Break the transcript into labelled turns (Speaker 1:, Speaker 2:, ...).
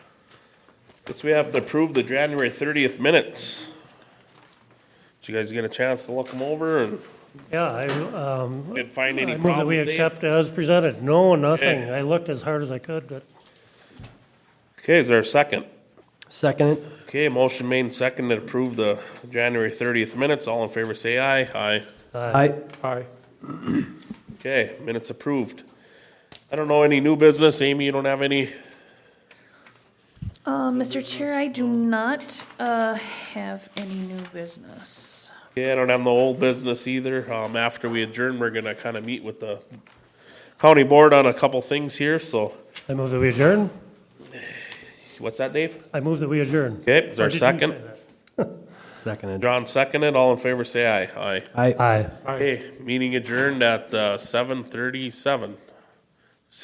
Speaker 1: Guess we have to approve the January thirtieth minutes. Did you guys get a chance to look them over and
Speaker 2: Yeah, I, um,
Speaker 1: did find
Speaker 2: I
Speaker 1: any
Speaker 2: move that we
Speaker 1: problems, Dave?
Speaker 2: accept as presented. No, nothing.
Speaker 1: Okay.
Speaker 2: I looked as hard as I could, but.
Speaker 1: Okay, is there a second?
Speaker 2: Second it.
Speaker 1: Okay, motion made and seconded to approve the January thirtieth minutes. All in favor, say aye. Aye.
Speaker 2: Aye. Aye.
Speaker 1: Okay, minutes approved. I don't know any new business. Amy, you don't have any?
Speaker 3: Uh, Mr. Chair, I do not uh, have any new business.
Speaker 1: Yeah, I don't have no old business either. Um, after we adjourn, we're gonna kinda meet with the county board on a couple things here, so,
Speaker 2: I move that we adjourn.
Speaker 1: what's that, Dave?
Speaker 2: I move that we adjourn.
Speaker 1: Okay, is there
Speaker 2: Or
Speaker 1: a
Speaker 2: did you
Speaker 1: second?
Speaker 2: say that?
Speaker 4: Seconded.
Speaker 1: John seconded, all in favor, say aye. Aye.
Speaker 4: I
Speaker 2: Aye.
Speaker 1: Hey, meeting adjourned at, uh, seven thirty-seven.